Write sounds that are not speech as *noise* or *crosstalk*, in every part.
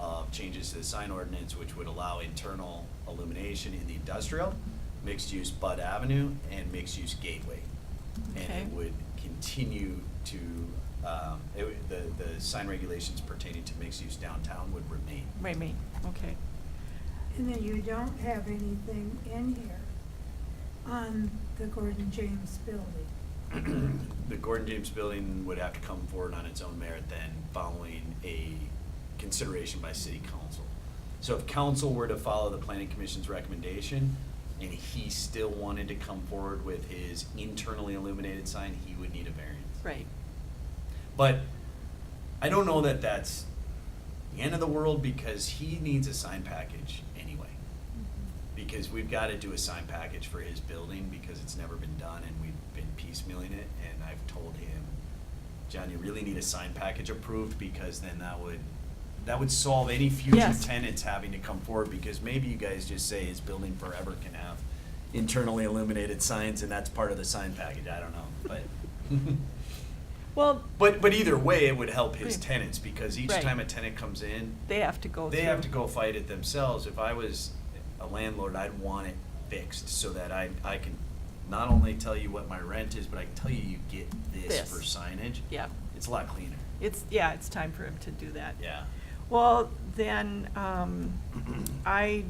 um, changes to the sign ordinance, which would allow internal illumination in the industrial, mixed-use Bud Avenue, and mixed-use Gateway. And Okay. it would continue to, um, it, would- the, the sign regulations pertaining to mixed-use downtown would remain. Right, me, okay. And then you don't have anything in here on the Gordon James building. The Gordon James Building would have to come forward on its own merit then, following a consideration by city council. So if council were to follow the planning commission's recommendation, and he still wanted to come forward with his internally illuminated sign, he would need a variance. Right. But I don't know that that's the end of the world, because he needs a sign package anyway. Because we've gotta do a sign package for his building, because it's never been done, and we've been piecemealing it, and I've told him, John, you really need a sign package approved, because then that would, that would solve any future Yes. tenants having to come forward, because maybe you guys just say his building forever can have internally illuminated signs, and that's part of the sign package, I don't know, but. *laughs* Well, But but either way, it would help his Right. tenants because each Right. time a tenant comes in, they have to go through. they have to go fight it themselves. If I was a landlord, I'd want it fixed so that I I can not only tell you what my rent is, but I can tell you you get this, This. for signage. Yeah, It's a lot cleaner. it's, yeah, it's time for him to do that. Yeah. Well, then, *clears throat* um, I,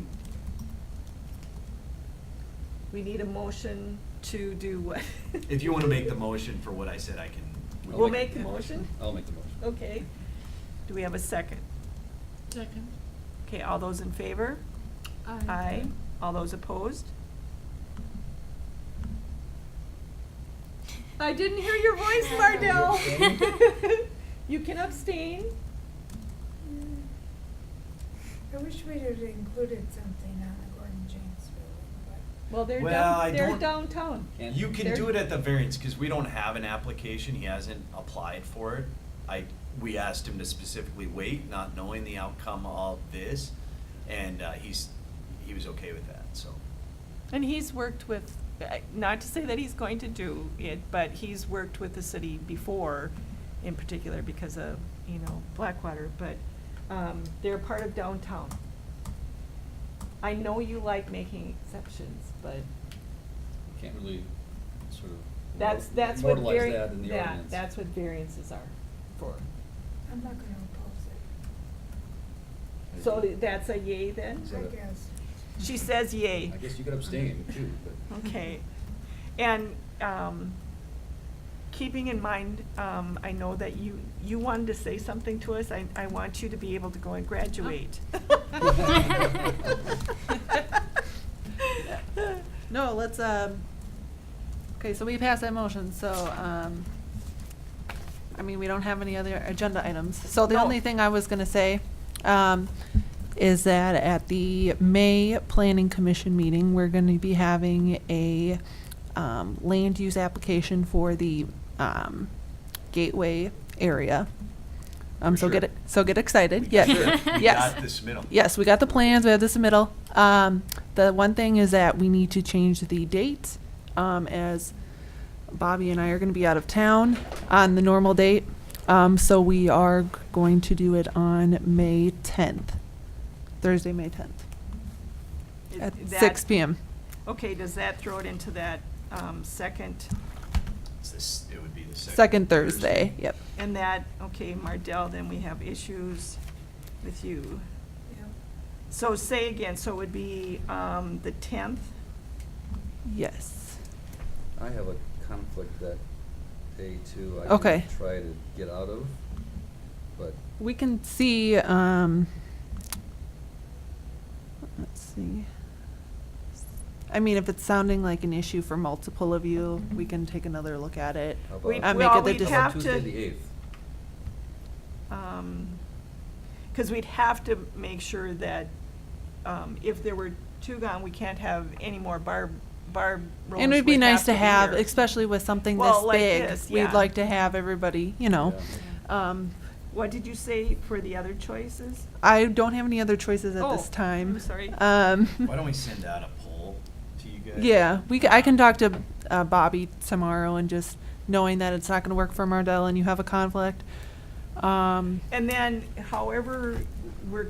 we need a motion to do what? *laughs* If you want to make the motion for what I said, I can. We'll make the motion? I'll make the motion. Okay. Do we have a second? Second. Okay, all those in favor? Aye. All those opposed? I didn't hear *laughs* your voice, *laughs* Mardell. You can abstain. I wish we'd have included something on the Gordon James building, Well, they're Well, I down, they're don't- downtown. Can't- You can There- do it at the variance, because we don't have an application, he hasn't applied for it. I, we asked him to specifically wait, not knowing the outcome of this, and uh, he's, he was okay with that, so. And he's worked with, uh, not to say that he's going to do it, but he's worked with the city before, in particular because of, you know, Blackwater, but um, they're part of downtown. I know you like making exceptions, but Can't really sort of. that's, that's what Immortalize vari- that in the that- ordinance. that's what variances are for. but I'm not gonna oppose So that's a yay then? So- it, I guess. She says yay. I guess you *laughs* could abstain too, but. Okay, and, um, keeping in mind, um, I know that you, you wanted to say something to us, I, I want you to be able to go and graduate. No, let's, um, okay, so we passed that motion, so, um, I mean, we don't have any other agenda items. So the No. only thing I was gonna say, um, is that at the May Planning Commission meeting, we're gonna be having a, um, land use application for the, um, gateway area. Um, For so get, sure. it. so get excited, Yeah, yes, *laughs* sure. We yes. got this middle. Yes, we got the plans, we have this in middle. Um, the one thing is that we need to change the date, um, as Bobby and I are gonna be out of town on the normal date. Um, so we are g- going to do it on May tenth, Thursday, May tenth, Is at that- six P M. Okay, does that throw it into that, um, second, It's this, it would be the second. Second Thursday, yep. and that, okay, Mardell, then we have issues with you. Yeah. So say again, so it would be, um, the tenth? Yes. I have a conflict that day too. Okay. I could try to get out of, but We can see, um, let's see. I mean, if it's sounding like an issue for multiple of you, we can take another look at it. how about? We- Uh, make well, it the we'd dis- How about have to. Tuesday the eighth? Because um, we'd have to make sure that um, if there were two gone, we can't have any more Barb, Barb rolls. And it'd be would nice to be have, here. especially with something Well, this like big, this, yeah. we'd like to have everybody, you know. Um, What did you say for the other choices? I don't have any other choices at Oh, this time. I'm sorry. Um. Why don't we send *laughs* out a poll to you guys? Yeah, we, c- I can talk to uh, Bobby tomorrow and just knowing that it's not gonna work for Mardell and you have a conflict. Um, And then however we're